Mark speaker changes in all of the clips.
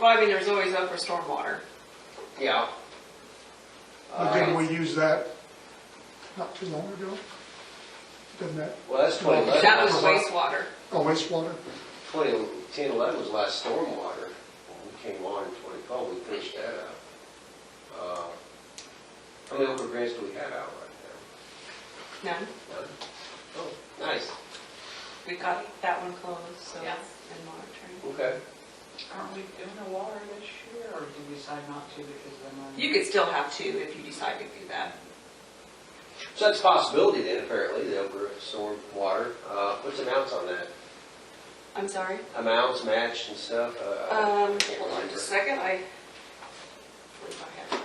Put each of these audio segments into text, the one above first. Speaker 1: Well, I mean, there's always up for stormwater.
Speaker 2: yeah.
Speaker 3: But
Speaker 2: Uh,
Speaker 3: didn't we use that not too long ago? Didn't that,
Speaker 2: Well, that's 2011.
Speaker 1: That was wastewater.
Speaker 3: oh wastewater?
Speaker 2: 2010, 11 was last stormwater. When we came on in 2012, we finished that out. Uh, How many open grants do we have out right
Speaker 1: No,
Speaker 2: now? None? Oh, nice,
Speaker 1: we got that one closed, so, and
Speaker 4: Yeah.
Speaker 1: monitoring.
Speaker 2: okay.
Speaker 5: Aren't we doing the water this year, or did we decide not to because of the money?
Speaker 1: You could still have two if you decide to do that.
Speaker 2: So that's a possibility then, apparently, the over stormwater. Uh, What's the amounts on that?
Speaker 1: I'm sorry?
Speaker 2: Amounts matched and stuff? Uh,
Speaker 1: Um,
Speaker 2: I can't
Speaker 1: hold on just
Speaker 2: remember.
Speaker 1: a second, I. believe I have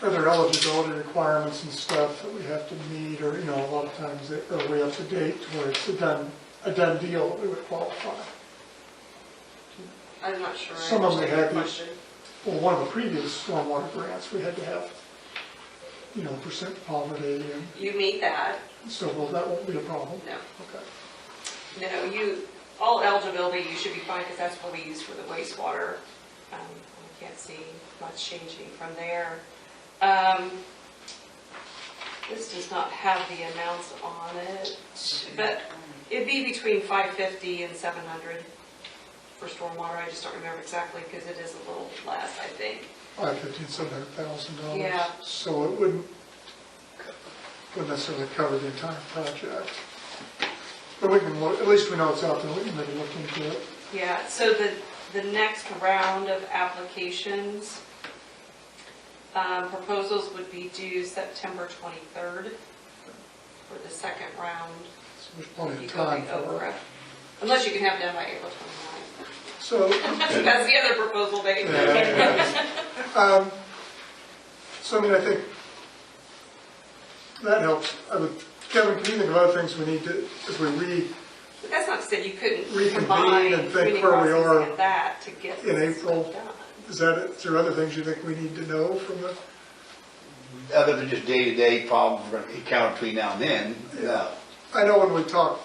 Speaker 1: that.
Speaker 3: Are there eligibility requirements and stuff that we have to meet, or, you know, a lot of times, they- are we up to date to where it's a done, a done deal that we would qualify?
Speaker 1: I'm not sure. I
Speaker 3: Some of them
Speaker 1: understand your
Speaker 3: have these-
Speaker 1: question.
Speaker 3: Well, one of the previous stormwater grants, we had to have, you know, percent poverty, and
Speaker 1: You meet that,
Speaker 3: so, well, that won't be a problem.
Speaker 1: no.
Speaker 3: Okay.
Speaker 1: No, you, all eligibility, you should be fine, because that's what we use for the wastewater. Um, I can't see much changing from there. Um, This does not have the amounts on it, but it'd be between 550 and 700 for stormwater. I just don't remember exactly, because it is a little less, I think.
Speaker 3: Five fifteen, seven hundred thousand dollars.
Speaker 1: Yeah.
Speaker 3: So it wouldn't, wouldn't necessarily cover the entire project. But we can, look- at least we know it's out there, we can maybe look into it.
Speaker 1: Yeah, so the, the next round of applications, um, proposals would be due September 23rd for the second round.
Speaker 3: So There's plenty
Speaker 1: You
Speaker 3: of
Speaker 1: go
Speaker 3: Oh, time
Speaker 1: the
Speaker 3: for
Speaker 1: Okra.
Speaker 3: it.
Speaker 1: Unless you can have it done by April 29th.
Speaker 3: So,
Speaker 1: That's the other proposal date.
Speaker 3: um, so I mean, I think that helps. I would, Kevin, can you think of other things we need to, as we read
Speaker 1: But that's not to say you couldn't
Speaker 3: Reconvene
Speaker 1: combine
Speaker 3: and think
Speaker 1: community
Speaker 3: where we are
Speaker 1: processing and that to get
Speaker 3: in
Speaker 1: this stuff
Speaker 3: April?
Speaker 1: done.
Speaker 3: Is that, it? is there other things you think we need to know from the,
Speaker 6: other than just day-to-day problems we're gonna encounter between now and then, no.
Speaker 3: I know when we talked,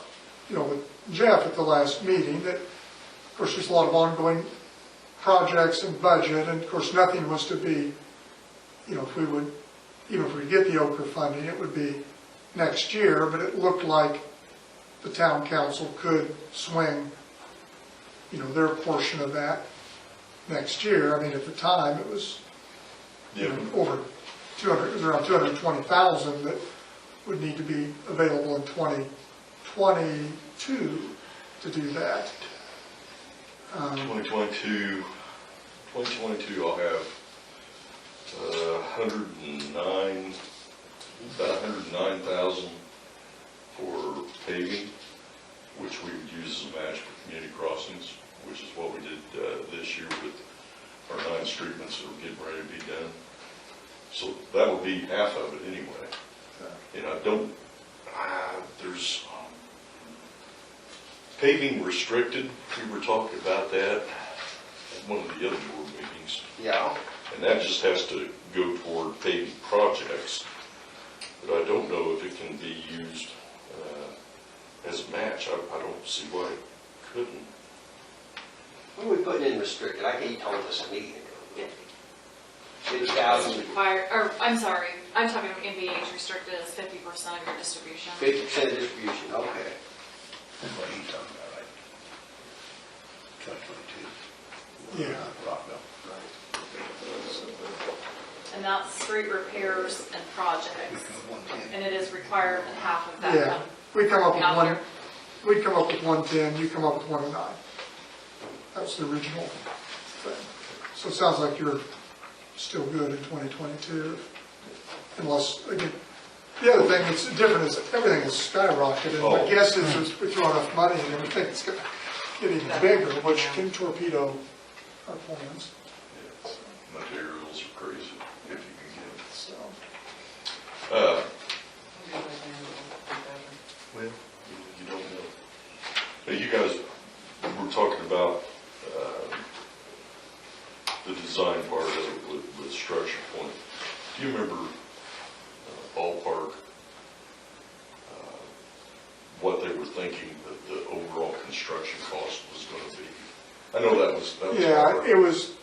Speaker 3: you know, with Jeff at the last meeting, that, of course, there's a lot of ongoing projects and budget, and of course, nothing was to be, you know, if we would, even if we get the Okra funding, it would be next year, but it looked like the town council could swing, you know, their portion of that next year. I mean, at the time, it was, you know, over 200, it was around 220,000 that would need to be available in 2022 to do that. Um,
Speaker 7: 2022, 2022, I'll have uh, 109, about 109,000 for paving, which we would use as a match for community crossings, which is what we did uh, this year with our nine streetments that were getting ready to be done. So that would be half of it anyway. And I don't, ah, there's, um, Paving restricted, we were talking about that at one of the other board meetings,
Speaker 2: Yeah,
Speaker 7: and that just has to go toward paving projects. But I don't know if it can be used uh, as a match. I, I don't see why it couldn't.
Speaker 2: what are we putting in restricted? I think you told us a meeting ago. 50,000,
Speaker 4: Fire, or, I'm sorry, I'm talking about NVH restricted as fifty percent of your distribution.
Speaker 2: 50% of distribution, okay.
Speaker 6: What are you talking about, right? Twenty twenty-two.
Speaker 3: Yeah.
Speaker 6: Rockville.
Speaker 4: And that's street repairs and projects.
Speaker 6: One ten.
Speaker 4: And it is required that half of that
Speaker 3: Yeah,
Speaker 4: come
Speaker 3: we come up with
Speaker 4: out
Speaker 3: one,
Speaker 4: there.
Speaker 3: we'd come up with 110, you come up with 109. That was the original thing. So it sounds like you're still good in 2022, unless, again, the other thing that's different is everything is skyrocketing. My
Speaker 7: Oh.
Speaker 3: guess is is we throw enough money and everything, it's gonna get even bigger, which can torpedo our plans,
Speaker 7: Materials are crazy, if you can
Speaker 3: so.
Speaker 7: get it. Uh,
Speaker 5: Maybe by then it'll
Speaker 7: Well, you you don't know. Now, you guys were talking about uh, the design part of it with the structure point. Do you remember uh, ballpark, uh, what they were thinking that the overall construction cost was going to be? I know that was, that was.
Speaker 3: Yeah,
Speaker 7: hard.
Speaker 3: it was